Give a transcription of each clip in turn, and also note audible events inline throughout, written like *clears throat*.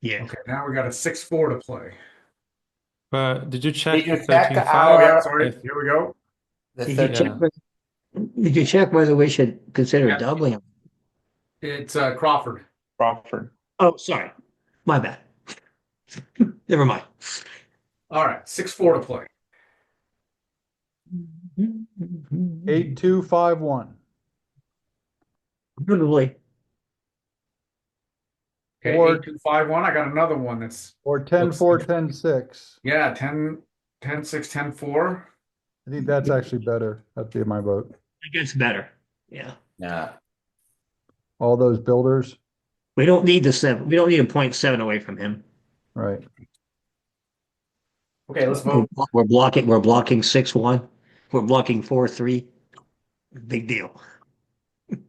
Yeah. Okay, now we got a six four to play. But did you Did check you the check 13 the Oh, five? yeah, Our- sorry. If- Here we go. The Yeah. third, Check Yeah. with- Did you check whether we should consider Yeah. doubling? him? It's uh, Crawford. Crawford. Oh, sorry, my bad. *laughs* Never mind. All right, six four to play. Eight, two, five, one. Probably. Okay, Or- eight, two, five, one. I got another one that's Or ten, Looks four, good. ten, six. yeah, 10, 10, 6, 10, 4. I think that's actually better. That'd be my vote. It gets better. Yeah, yeah, All those builders, we don't need the seven. We don't need a point seven away from him. right? Okay, let's We're, vote. blo- we're blocking. We're blocking six one. We're blocking four three. Big deal. *laughs*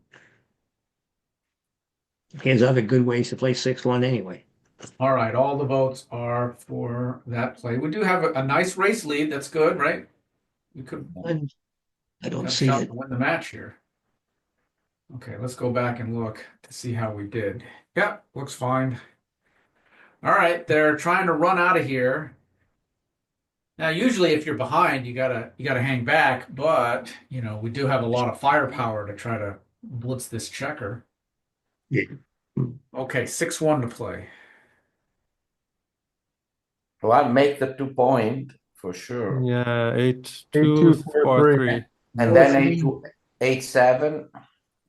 He has other good ways to play six one anyway. All right, all the votes are for that play. We do have a, a nice race lead. That's good, right? We could And I don't have a see shot it. to win the match here. Okay, let's go back and look to see how we did. Yep, looks fine. All right, they're trying to run out of here. Now, usually if you're behind, you gotta you gotta hang back, but you know, we do have a lot of firepower to try to blitz this checker. Yeah. Okay, six one to play. well, make the two point for sure, Yeah, eight, Eight, two, two, four, four, three. three. Mm-hmm. and Yeah. then eight to eight seven,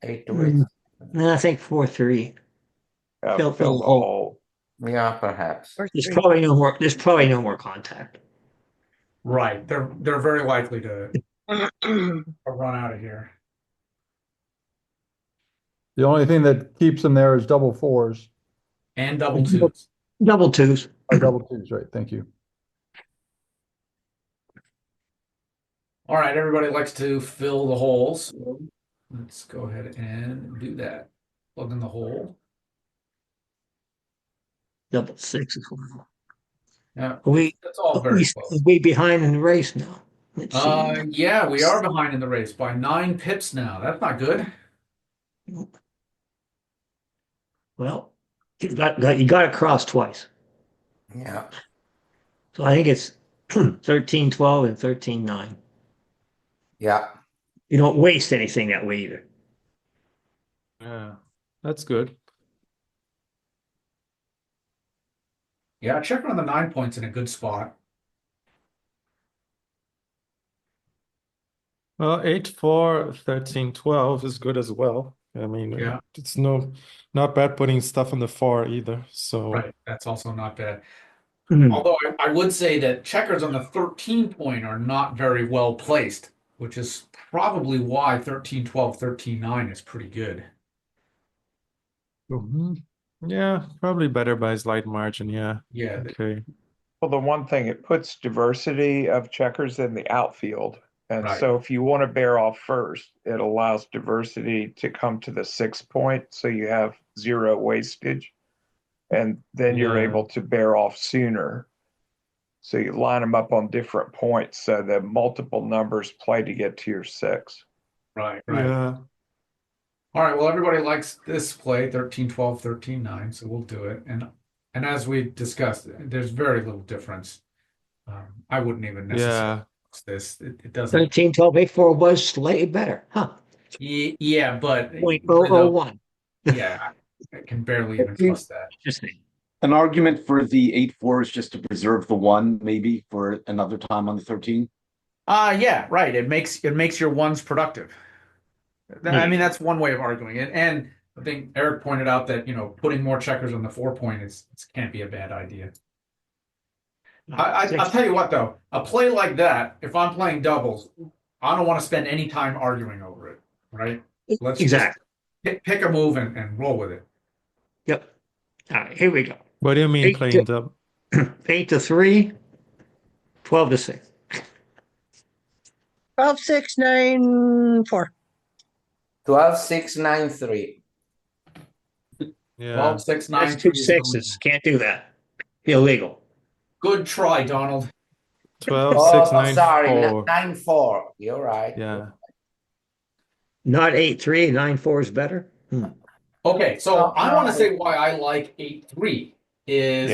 eight to eight. Mm. No, I think four three. Uh, Fill- fill the hole. hole. Yeah, perhaps. There's probably no more. There's probably no more contact. Right. They're they're very likely to to run out of here. The only thing that keeps them there is double fours, And double twos. Double twos. or double twos, right? Thank you. All right, everybody likes to fill the holes. Let's go ahead and do that. Plug in the hole. Double six as well. Yeah. Are we That's all are we, very are close. we behind in the race now? Let's see. Uh, yeah, we are behind in the race by nine pips now. That's not good. well, you got, got you got across twice. Yeah, So I think it's *clears throat* 13 12 and 13 9. yeah. You don't waste anything that way either. Yeah, that's good. Yeah, check on the nine points in a good spot. Well, eight, four, 13, 12 is good as well. I mean, uh, Yeah. it's no not bad putting stuff on the four either. So Right. That's also not bad. Hmm. Although I, I would say that checkers on the 13 point are not very well placed, which is probably why 13 12, 13 9 is pretty good. Mhm. yeah, probably better by a slight margin. Yeah. Yeah. Okay. Well, the one thing, it puts diversity of checkers in the outfield. And Right. so if you want to bear off first, it allows diversity to come to the six point, so you have zero wastage. And then you're Yeah. able to bear off sooner. So you line them up on different points so that multiple numbers play to get to your six. Right. Yeah. All right, well, everybody likes this play 13 12, 13 9, so we'll do it. And and as we discussed, there's very little difference. Um, I wouldn't even necessarily Yeah. use this. It, it doesn't. 13 12 8 4 was slightly better. Huh. Ye- Yeah, but Point oh oh one. yeah, I can barely even trust that. Just saying. An argument for the eight four is just to preserve the one, maybe for another time on the thirteen. Uh yeah, right. It makes it makes your ones productive. Th- I Yeah. mean, that's one way of arguing it. And I think Eric pointed out that, you know, putting more checkers on the four point is it can't be a bad idea. I, I, I'll tell you what though, a play like that, if I'm playing doubles, I don't want to spend any time arguing over it, right? Let's just Exactly. pick, pick a move and, and roll with it. Yep. All right, here we go. What do you mean Eight, playing the *clears throat* 8 to 3, 12 to 6. 12, 6, 9, 4. Twelve, six, nine, three. yeah. Twelve, six, nine, That's two three is the lead. sixes. Can't do that. Illegal. Good try, Donald. 12, Oh, six, nine, sorry, n- four. nine, four. You're right. Yeah. Not 8 3, 9 4 is better. Hmm. Okay, so Uh, I want to no. say why I like eight three is